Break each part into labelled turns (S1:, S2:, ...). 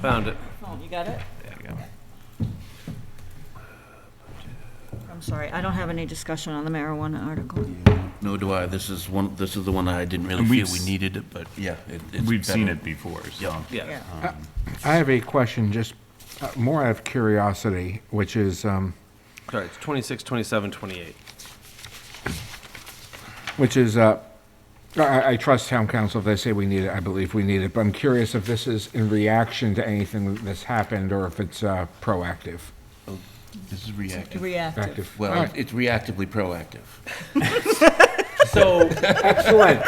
S1: Found it.
S2: Oh, you got it?
S1: There you go.
S2: I'm sorry, I don't have any discussion on the marijuana article.
S3: No, do I. This is one, this is the one I didn't really
S4: And
S3: feel
S4: we've
S3: we
S4: s-
S3: needed it, but yeah. it- it's
S4: We've seen
S3: better.
S4: it before, so.
S3: Yeah.
S1: Yeah.
S2: Yeah.
S5: I have a question, just uh, more out of curiosity, which is, um,
S1: Sorry, it's 26, 27, 28.
S5: which is, uh, I, I trust town council if they say we need it, I believe we need it, but I'm curious if this is in reaction to anything that's happened or if it's uh, proactive.
S3: This is reactive.
S2: Reactive.
S5: Active. All
S3: Well,
S5: right.
S3: it's reactively proactive.
S6: So,
S5: Excellent.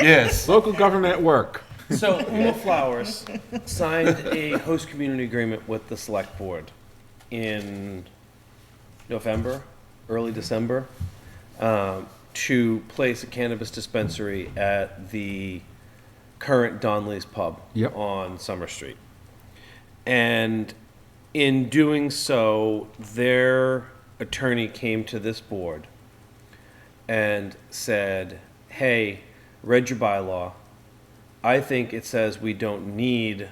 S3: Yes.
S5: Local government at work.
S6: so Uma Flowers signed a host community agreement with the select board in November, early December, um, to place a cannabis dispensary at the current Don Lee's Pub
S5: Yep.
S6: on Summer Street. And in doing so, their attorney came to this board and said, Hey, read your bylaw. I think it says we don't need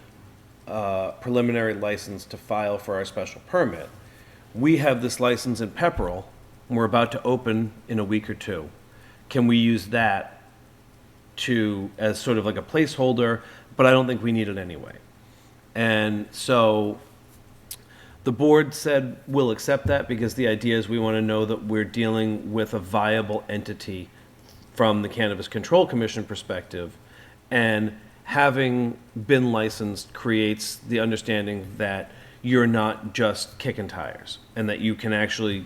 S6: a preliminary license to file for our special permit. We have this license in Pepperell, and we're about to open in a week or two. Can we use that to, as sort of like a placeholder, but I don't think we need it anyway. And so the board said, we'll accept that because the idea is we want to know that we're dealing with a viable entity from the Cannabis Control Commission perspective. And having been licensed creates the understanding that you're not just kicking tires and that you can actually,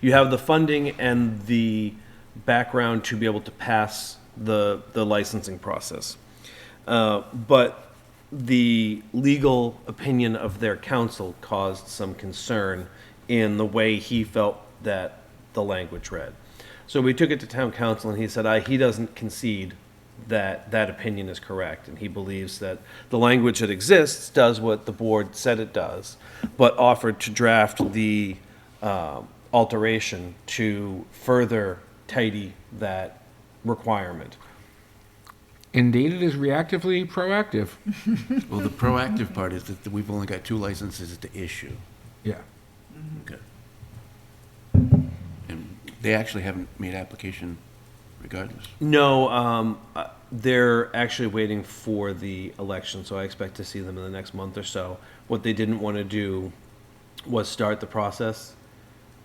S6: you have the funding and the background to be able to pass the, the licensing process. Uh, but the legal opinion of their counsel caused some concern in the way he felt that the language read. So we took it to town council, and he said, I, he doesn't concede that that opinion is correct, and he believes that the language that exists does what the board said it does, but offered to draft the um, alteration to further tidy that requirement.
S5: Indeed, it is reactively proactive.
S3: Well, the proactive part is that we've only got two licenses to issue.
S5: Yeah.
S3: Okay. And they actually haven't made application regardless.
S6: No, um, uh, they're actually waiting for the election, so I expect to see them in the next month or so. What they didn't want to do was start the process,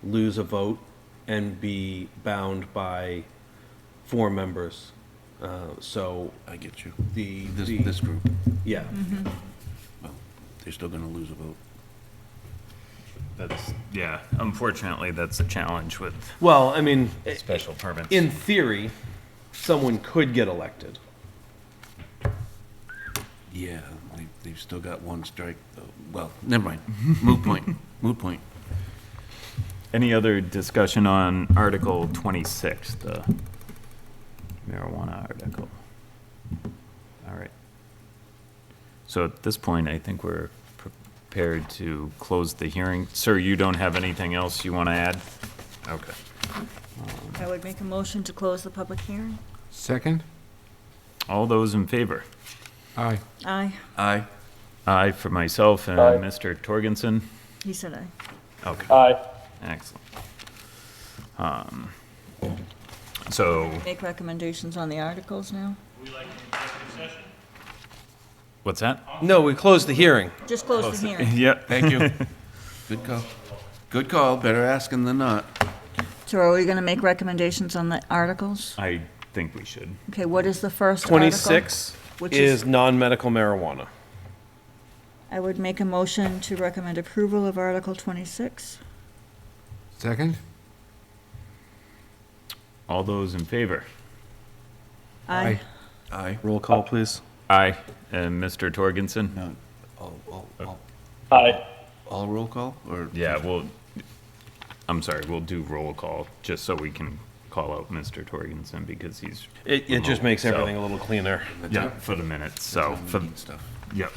S6: lose a vote, and be bound by four members. Uh, so
S3: I get you.
S6: the,
S3: This,
S6: the-
S3: this group,
S6: yeah,
S3: well, they're still going to lose a vote.
S4: That's, yeah, unfortunately, that's a challenge with
S6: well, I mean, i-
S4: special permits.
S6: in theory, someone could get elected.
S3: Yeah, they, they've still got one strike, though. Well, never mind. Moot point, moot point.
S4: Any other discussion on Article 26, the marijuana article? All right. So at this point, I think we're prepared to close the hearing. Sir, you don't have anything else you want to add? Okay.
S2: I would make a motion to close the public hearing.
S5: Second?
S4: All those in favor?
S5: Aye.
S2: Aye,
S3: Aye.
S4: Aye for myself and Mr. Torgensen.
S2: he said aye.
S4: Okay. Aye. Excellent. Um, So,
S2: Make recommendations on the articles now?
S4: what's that?
S6: No, we closed the hearing.
S2: Just close the hearing.
S4: Yep.
S3: Thank you. Good call. Good call. Better asking than not.
S2: So are we gonna make recommendations on the articles?
S4: I think we should.
S2: Okay, what is the first article?
S6: Twenty-six
S2: Which is-
S6: is non-medical marijuana.
S2: I would make a motion to recommend approval of Article twenty-six.
S5: Second?
S4: All those in favor?
S5: Aye.
S3: Aye.
S6: Roll call, please.
S4: Aye. And Mr. Torgensen?
S3: No, all, all, all. All roll call, or?
S4: Yeah, well, I'm sorry, we'll do roll call, just so we can call out Mr. Torgensen, because he's.
S6: It, it just makes
S4: remote, so-
S6: everything a little cleaner.
S4: Yeah, for the minutes, so, for,
S3: Meeting Stuff.
S4: yep.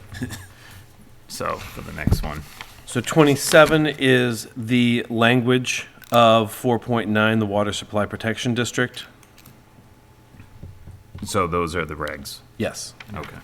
S4: So, for the next one.
S6: So 27 is the language of 4.9, the Water Supply Protection District?
S4: So those are the regs.
S6: Yes.
S4: Okay.